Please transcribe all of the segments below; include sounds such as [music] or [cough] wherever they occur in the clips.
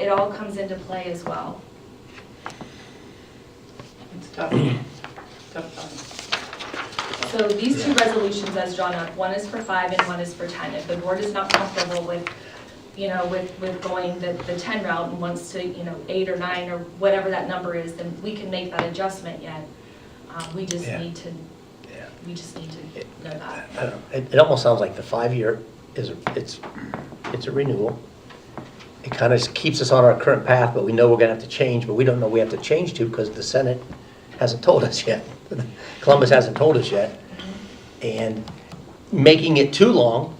it all comes into play as well. It's tough, tough So these two resolutions as drawn up, one is for five and one is for 10. If the board is not comfortable with, you know, with, with going the, the 10 route and wants to, you know, eight or nine or whatever that number is, then we can make that adjustment yet. Um, We just Yeah. need to, Yeah. we just need It- to know I that. don't know. It, it almost sounds like the five-year is, a- it's, it's a renewal. It kind of keeps us on our current path, but we know we're gonna have to change, but we don't know we have to change to because the Senate hasn't told us yet. [laughs] Columbus hasn't told us yet. And making it too long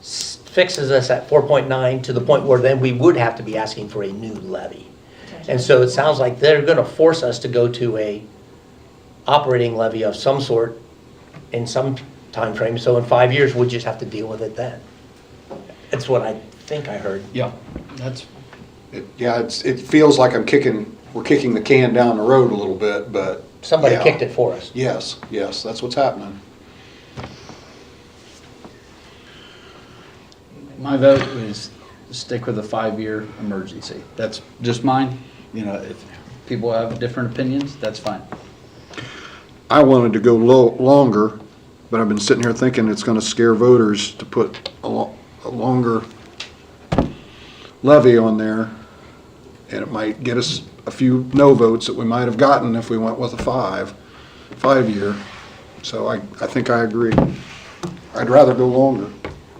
s- fixes us at four point nine to the point where then we would have to be asking for a new levy. And so it sounds like they're gonna force us to go to a operating levy of some sort in some time frame. so in five years, we'll just have to deal with it then. That's what I think I heard. Yeah, that's, It- Yeah, it's, it feels like I'm kicking, we're kicking the can down the road a little bit, but. Somebody yeah. kicked it for us. Yes, yes, that's what's happening. my vote is stick with a five-year emergency. That's just mine, you know, if people have different opinions, that's fine. I wanted to go lo- longer, but I've been sitting here thinking it's gonna scare voters to put a lo- a longer levy on there. And it might get us a few no votes that we might have gotten if we went with a five, five-year. So I, I think I agree. I'd rather go longer.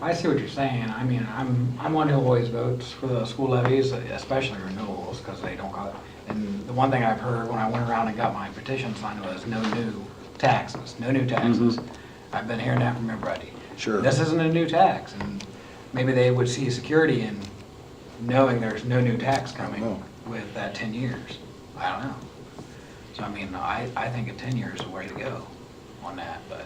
I see what you're saying. I mean, I'm, I'm one who always votes for the school levies, especially renewals, because they don't got, and the one thing I've heard when I went around and got my petition signed was no new taxes, no new taxes. I've been hearing that from everybody. Mm-hmm. Sure. This isn't a new tax, and maybe they would see security in knowing there's no new tax coming know. with that ten years. I don't know. So I mean, I, I think a ten years is the way to go on that, but.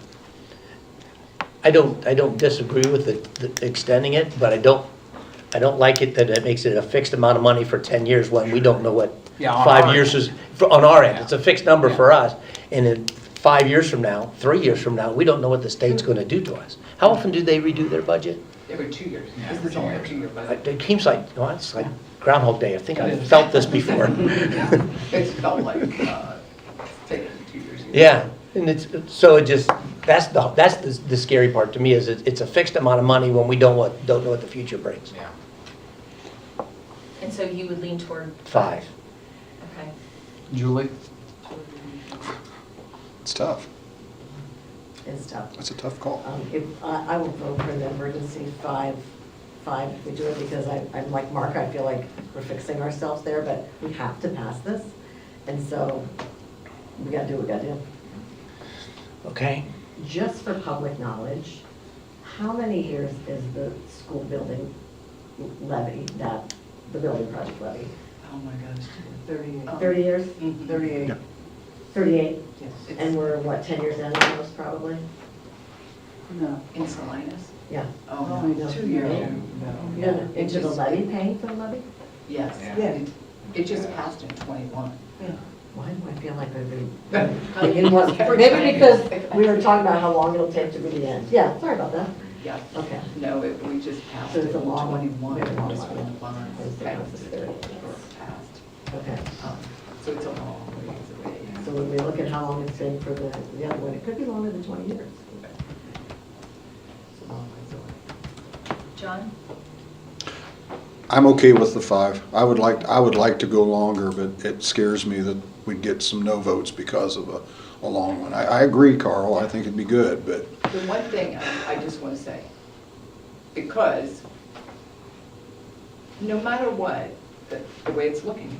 I don't, I don't disagree with the, the extending it, but I don't, I don't like it that it makes it a fixed amount of money for ten years when we don't know what Yeah, on five our years end. is, for- on our end, it's a fixed number Yeah. for us. And in five years from now, three years from now, we don't know what the state's gonna do to us. How often do they redo their budget? Every two years, Yeah, it's only a two-year I- budget. It seems like, well, it's like Groundhog Day, I think It I've is. felt this before. [laughs] It's felt like, uh, it's taken two years. Yeah, and it's, so it just, that's the, that's the the scary part to me, is it- it's a fixed amount of money when we don't what, don't know what the future brings. Yeah. And so you would lean toward, Five. okay. Julie? It's tough. is tough. That's a tough call. Um, If, I, I will vote for the emergency five, five, if we do it, because I, I'm like Mark, I feel like we're fixing ourselves there, but we have to pass this, and so we gotta do what we gotta do. Okay. Just for public knowledge, how many years is the school building levy, that, the building project levy? Oh my gosh. Um, Mm-hmm. Thirty years? Thirty-eight, Thirty-eight, yes. and we're, what, ten years in almost, probably? No, in Salinas? Yeah. Oh, no, two years. No, yeah. No, It Into the just- levy, paying for the levy? Yes. Yeah. It- It just passed in twenty-one. Why do I feel like I've [laughs] been, it was, maybe because we were talking about how long it'll take to be the end. Yeah, sorry about that. Yeah. Okay. No, it, we just passed So it in it's a long one, twenty-one. very long It was one. when the bonds It's the passed, bonds is thirty, yes. were passed. Okay, Um, So it's a long ways away. so when we look at how long it's been for the, the other one, it could be longer than twenty years. It's a long ways away. John? I'm okay with the five. I would like, I would like to go longer, but it scares me that we'd get some no votes because of a, a long one. I, I agree, Carl, I think it'd be good, but The one thing I I just want to say, because no matter what, the- the way it's looking,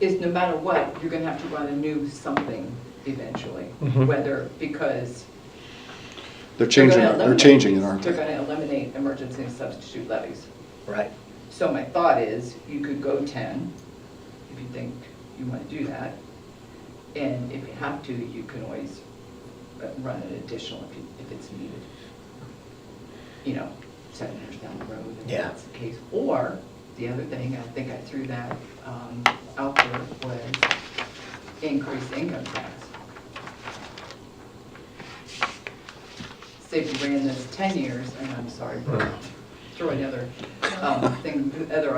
is no matter what, you're going to have to run a new something eventually, Mhm. whether, because they're They're changing, gonna it. they're eliminate changing it, these. aren't They're they? gonna eliminate emergency and substitute levies. Right. So my thought is, you could go ten, if you think you wanna do that. And if you have to, you can always uh, run an additional if, you- if it's needed. You know, seven years down the road, if Yeah. that's the case. Or, the other thing, I think I threw that, um, out there, was increased income tax. Say if you ran this ten years, and I'm sorry, throw another, um, thing, other